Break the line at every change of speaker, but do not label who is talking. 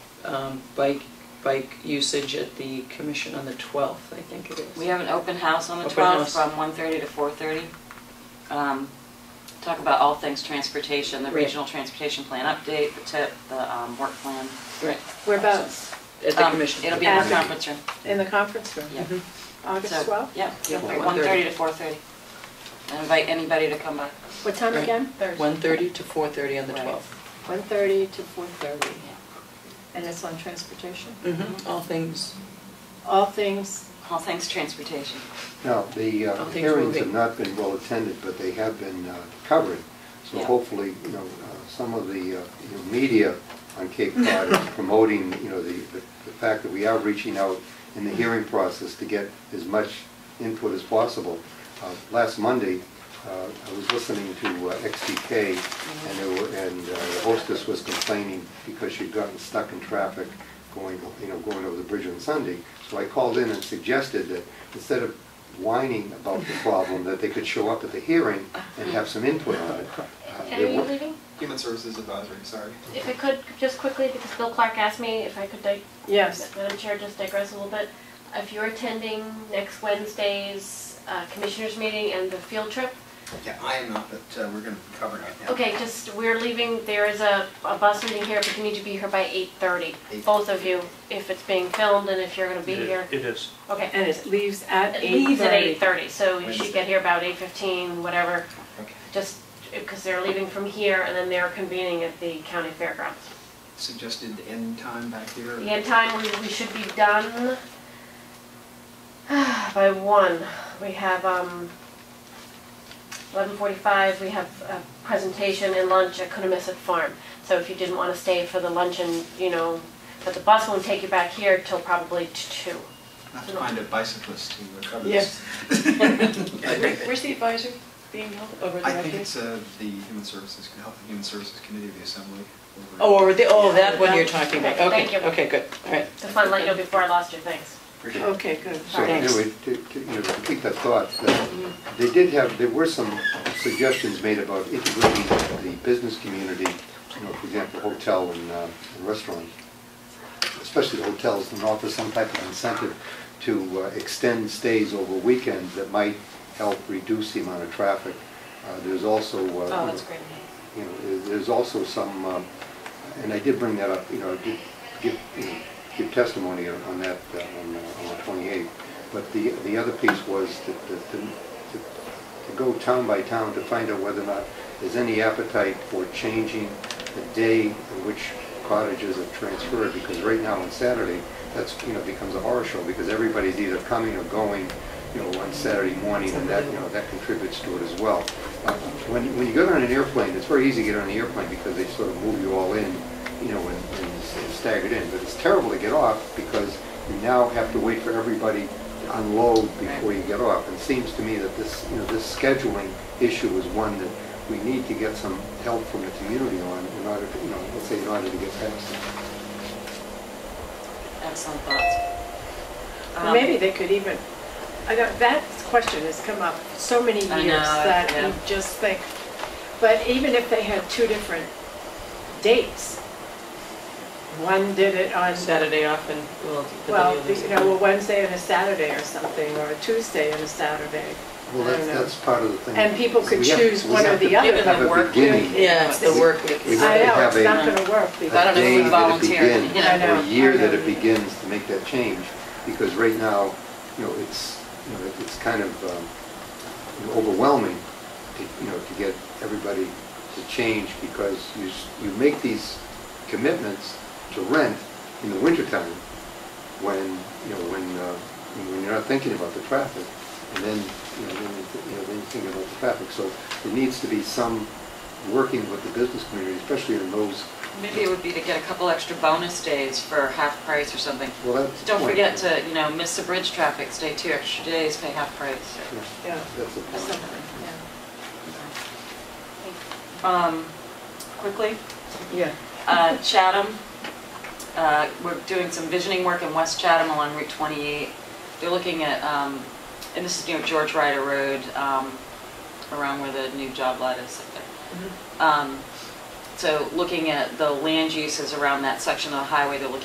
um, bike, bike usage at the commission on the 12th, I think it is.
We have an open house on the
Open house.
12th from 1:30 to 4:30. Um, Talk about all things transportation, the
Right.
regional transportation plan update, the tip, the um, work plan.
Right,
Whereabouts?
at the
Um,
commission.
It'll be in the
Yeah.
conference room.
In the conference room? Mm-hmm.
Yeah.
August
So,
12th?
Yeah,
Yeah,
1:30 to 4:30. I invite anybody to come by.
What time
Right.
again? Thursday.
1:30 to 4:30 on the
Right.
12th.
1:30 to 4:30. And it's on transportation?
Mhm, All things,
All things,
All things transportation.
Now, the
Oh,
uh,
things
hearings have
moving.
not been well attended, but they have been uh, covered. So
Yeah.
hopefully, you know, uh, some of the, uh, you know, media on Cape Cod is promoting, you know, the, the the fact that we are reaching out in the hearing process to get as much input as possible. Uh, Last Monday, uh, I was listening to uh, XTK, and there were, and uh, the hostess was complaining because she'd gotten stuck in traffic going, you know, going over the bridge on Sunday. So I called in and suggested that instead of whining about the problem, that they could show up at the hearing and have some input on it. Uh,
And
there
are you
were-
leaving?
Human Services Advisory, sorry.
If I could, just quickly, because Bill Clark asked me if I could, dig-
yes.
Madam Chair, just digress a little bit. If you're attending next Wednesday's uh, Commissioners' meeting and the field trip,
Yeah, I am not, but uh, we're going to be covering it now.
okay, just, we're leaving, there is a, a bus meeting here, but you need to be here by 8:30,
Eight.
both of you, if it's being filmed and if you're gonna be here.
It is.
Okay.
And it leaves at 8:30.
It leaves at 8:30, so you should
Wednesday.
get here about 8:15, whatever,
Okay.
just, because they're leaving from here and then they're convening at the county fairgrounds.
Suggested end time back here.
The end time, we, we should be done by one. We have, um, eleven forty-five, we have a presentation and lunch at Conomisset Farm. So if you didn't wanna stay for the luncheon, you know, but the bus won't take you back here till probably t- two.
Not to find a bicyclist to uh, cover
Yes.
this.
Where's the advisory being held? Over
I think it's uh, the Human Services, Health and Human Services Committee of the Assembly. over-
oh, or the, oh, that one you're
Yeah.
talking about,
Okay,
okay,
thank you.
okay, good, all right.
Just wanted to let you know before I lost you, thanks.
oh,
Appreciate it.
Okay, good.
So anyway, to, to, you know, to keep that thought, that uh, they did have, there were some suggestions made about integrating the business community, you know, for example, hotel and uh, and restaurant, especially the hotels, and offer some type of incentive to uh, extend stays over weekends that might help reduce the amount of traffic. Uh, There's also, uh, you know, you know, there- there's also some, um, and I did bring that up, you know, I did give, you know, give testimony on on that, uh, on uh, on the 28th. But the, the other piece was to, to, to- to go town by town to find out whether or not there's any appetite for changing the day in which cottages are transferred, because right now on Saturday, that's, you know, becomes a horror show, because everybody's either coming or going, you know, on Saturday morning, and that, you know, that contributes to it as well. Uh, When, when you get on an airplane, it's very easy to get on an airplane, because they sort of move you all in, you know, and and s- staggered in, but it's terrible to get off, because you now have to wait for everybody to unload before you get off. And it seems to me that this, you know, this scheduling issue is one that we need to get some help from the community on in order, to, you know, let's say in order to get past it.
Excellent thoughts. Um,
Maybe they could even, I don't, that question has come up so many years
I know,
that
yeah.
you just think, but even if they had two different dates, one did it on,
Saturday off and, well, the
well,
other
you know, a Wednesday and a Saturday or something, or a Tuesday and a Saturday.
Well,
I
that's,
don't know.
that's part of the thing.
And people could
We have-
choose
we
one or
have
the
to
other.
have a
Given the work
beginning.
period.
Yeah, it's the work week.
We
I
have to
know, it's
have a-
not going to work
I
a
don't know
because,
if
day
we
that it
volunteered,
begins,
you know. I
know,
Or a year
I
that it
know.
begins to make that change, because right now, you know, it's, you know, it's kind of um, you know, overwhelming, to you know, to get everybody to change, because you, s- you make these commitments to rent in the wintertime, when, you know, when, uh, when you're not thinking about the traffic, and then, you know, then you th- you know, then you think about the traffic. So there needs to be some working with the business community, especially in those
Maybe it would be to get a couple extra bonus days for half price or something.
Well, that's the
Don't
point.
forget to, you know, miss the bridge traffic, stay two extra days, pay half price.
Yeah,
yeah,
That's the point.
something, yeah.
Um, Quickly,
Yeah.
uh, Chatham, uh, we're doing some visioning work in West Chatham along Route 28. They're looking at, um, and this is near George Ryder Road, um, around where the new job lot is up there. Um, So looking at the land uses around that section of the highway, they're looking